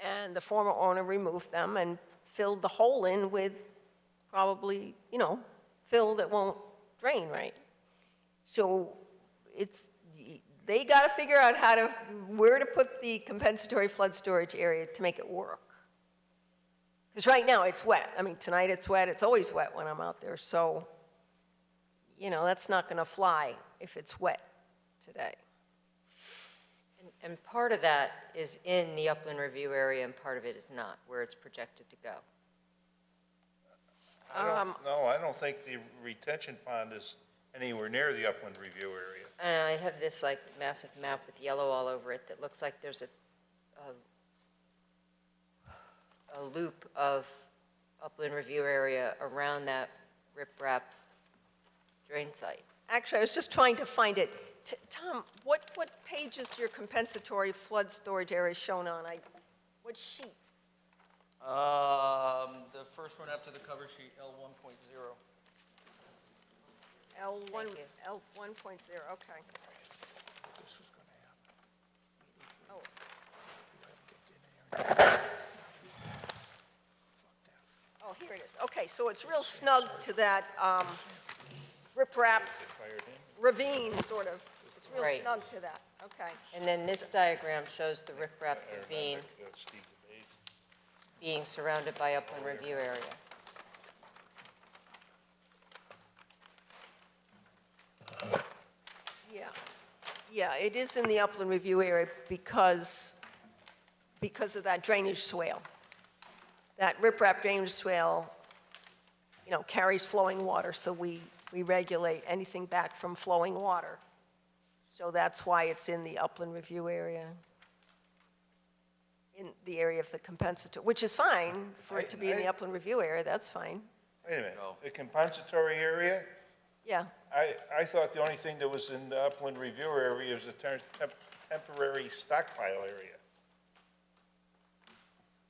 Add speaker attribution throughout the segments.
Speaker 1: and the former owner removed them and filled the hole in with probably, you know, fill that won't drain right. So it's, they got to figure out how to, where to put the compensatory flood storage area to make it work. Because right now, it's wet. I mean, tonight it's wet, it's always wet when I'm out there, so, you know, that's not going to fly if it's wet today.
Speaker 2: And- And part of that is in the upland review area and part of it is not, where it's projected to go.
Speaker 3: I
Speaker 1: Um,
Speaker 3: don't, no, I don't think the retention pond is anywhere near the upland review area.
Speaker 2: And I have this like massive map with yellow all over it that looks like there's a, a, a loop of upland review area around that riprap drain site.
Speaker 1: Actually, I was just trying to find it. T- Tom, what, what page is your compensatory flood storage area shown on? I, what sheet?
Speaker 4: Um, the first one after the cover sheet, L one point zero.
Speaker 1: L one,
Speaker 2: Thank you.
Speaker 1: L one point zero, okay. Oh. Oh, here it is. Okay, so it's real snug to that, um, riprap ravine, sort of. It's real
Speaker 2: Right.
Speaker 1: snug to that, okay.
Speaker 2: And then this diagram shows the riprap ravine
Speaker 3: That's uh, Steve DeBate.
Speaker 2: being surrounded by upland review area.
Speaker 1: Yeah, yeah, it is in the upland review area because, because of that drainage swale. That riprap drainage swale, you know, carries flowing water, so we, we regulate anything back from flowing water. So that's why it's in the upland review area, in the area of the compensatory, which is fine for it to be in the
Speaker 3: I- I-
Speaker 1: upland review area, that's fine,
Speaker 3: Wait a minute, the compensatory area?
Speaker 1: yeah.
Speaker 3: I, I thought the only thing that was in the upland review area was a ter- temp- temporary stockpile area.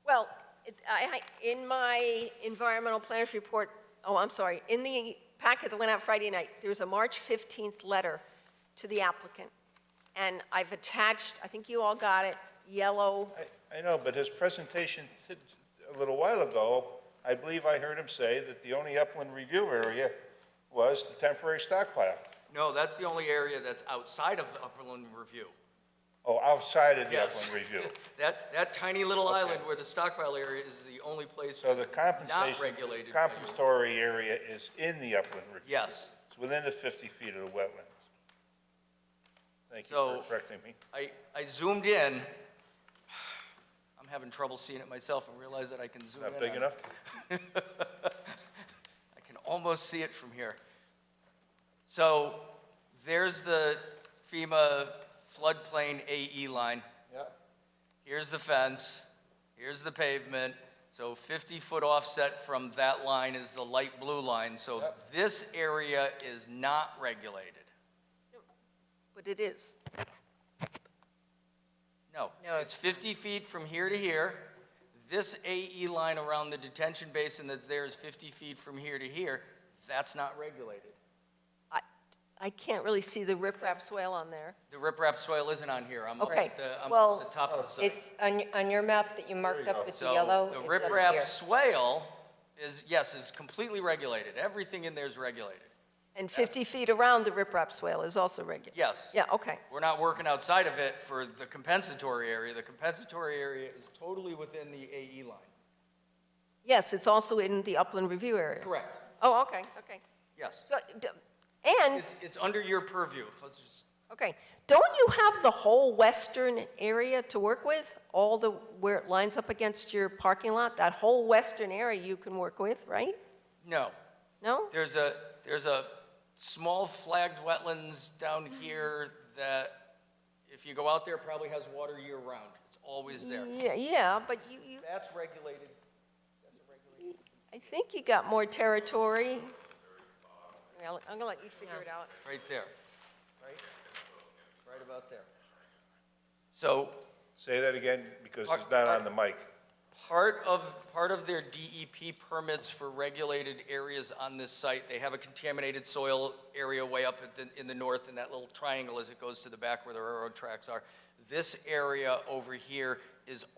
Speaker 1: Well, it- I, I- in my environmental planners report, oh, I'm sorry, in the packet that went out Friday night, there was a March 15th letter to the applicant, and I've attached, I think you all got it, yellow,
Speaker 3: I, I know, but his presentation t- a little while ago, I believe I heard him say that the only upland review area was the temporary stockpile.
Speaker 4: No, that's the only area that's outside of the upland review.
Speaker 3: Oh, outside of the
Speaker 4: Yes.
Speaker 3: upland review.
Speaker 4: That, that tiny little island where the stockpile area is the only place.
Speaker 3: So the compensation.
Speaker 4: Not regulated. by you.
Speaker 3: Compensatory area is in the upland review.
Speaker 4: Yes.
Speaker 3: It's within the 50 feet of the wetlands. Thank you
Speaker 4: So-
Speaker 3: for correcting me.
Speaker 4: I, I zoomed in. I'm having trouble seeing it myself and realize that I can zoom in.
Speaker 3: Not big
Speaker 4: on it.
Speaker 3: enough?
Speaker 4: I can almost see it from here. So there's the FEMA floodplain AE line.
Speaker 3: Yeah.
Speaker 4: Here's the fence, here's the pavement. So 50-foot offset from that line is the light blue line. So this area is not regulated.
Speaker 1: but it is.
Speaker 4: No.
Speaker 2: No,
Speaker 4: It's
Speaker 2: it's-
Speaker 4: 50 feet from here to here. This AE line around the detention basin that's there is 50 feet from here to here. That's not regulated.
Speaker 1: I, I can't really see the riprap swale on there.
Speaker 4: The riprap soil isn't on here. I'm up
Speaker 1: Okay,
Speaker 4: at the, I'm
Speaker 1: well-
Speaker 4: up at the top of the site.
Speaker 2: It's on, y- on your map that you marked
Speaker 3: you
Speaker 2: up
Speaker 3: go.
Speaker 2: with the
Speaker 4: So
Speaker 2: yellow.
Speaker 4: The
Speaker 2: it's up
Speaker 4: riprap
Speaker 2: here.
Speaker 4: swale is, yes, is completely regulated. Everything in there is regulated.
Speaker 1: And 50 feet around the riprap swale is also regular.
Speaker 4: Yes.
Speaker 1: Yeah, okay,
Speaker 4: We're not working outside of it for the compensatory area. The compensatory area is totally within the AE line.
Speaker 1: yes, it's also in the upland review area.
Speaker 4: Correct.
Speaker 1: Oh, okay, okay.
Speaker 4: Yes.
Speaker 1: So, d- And
Speaker 4: It's, it's under your purview. Let's just,
Speaker 1: Okay, don't you have the whole western area to work with? All the, where it lines up against your parking lot, that whole western area you can work with, right?
Speaker 4: no.
Speaker 1: No?
Speaker 4: There's a, there's a small flagged wetlands down here that if you go out there, probably has water year round. It's always there.
Speaker 1: Yeah, yeah, but you, you,
Speaker 4: That's regulated.
Speaker 1: I think you got more territory. Yeah, I'm gonna let you figure it out.
Speaker 4: Right there, right? Right about there. So
Speaker 3: Say that again, because
Speaker 4: Part-
Speaker 3: it's not on the mic.
Speaker 4: part of, part of their DEP permits for regulated areas on this site, they have a contaminated soil area way up at the, in the north in that little triangle as it goes to the back where the railroad tracks are. This area over here is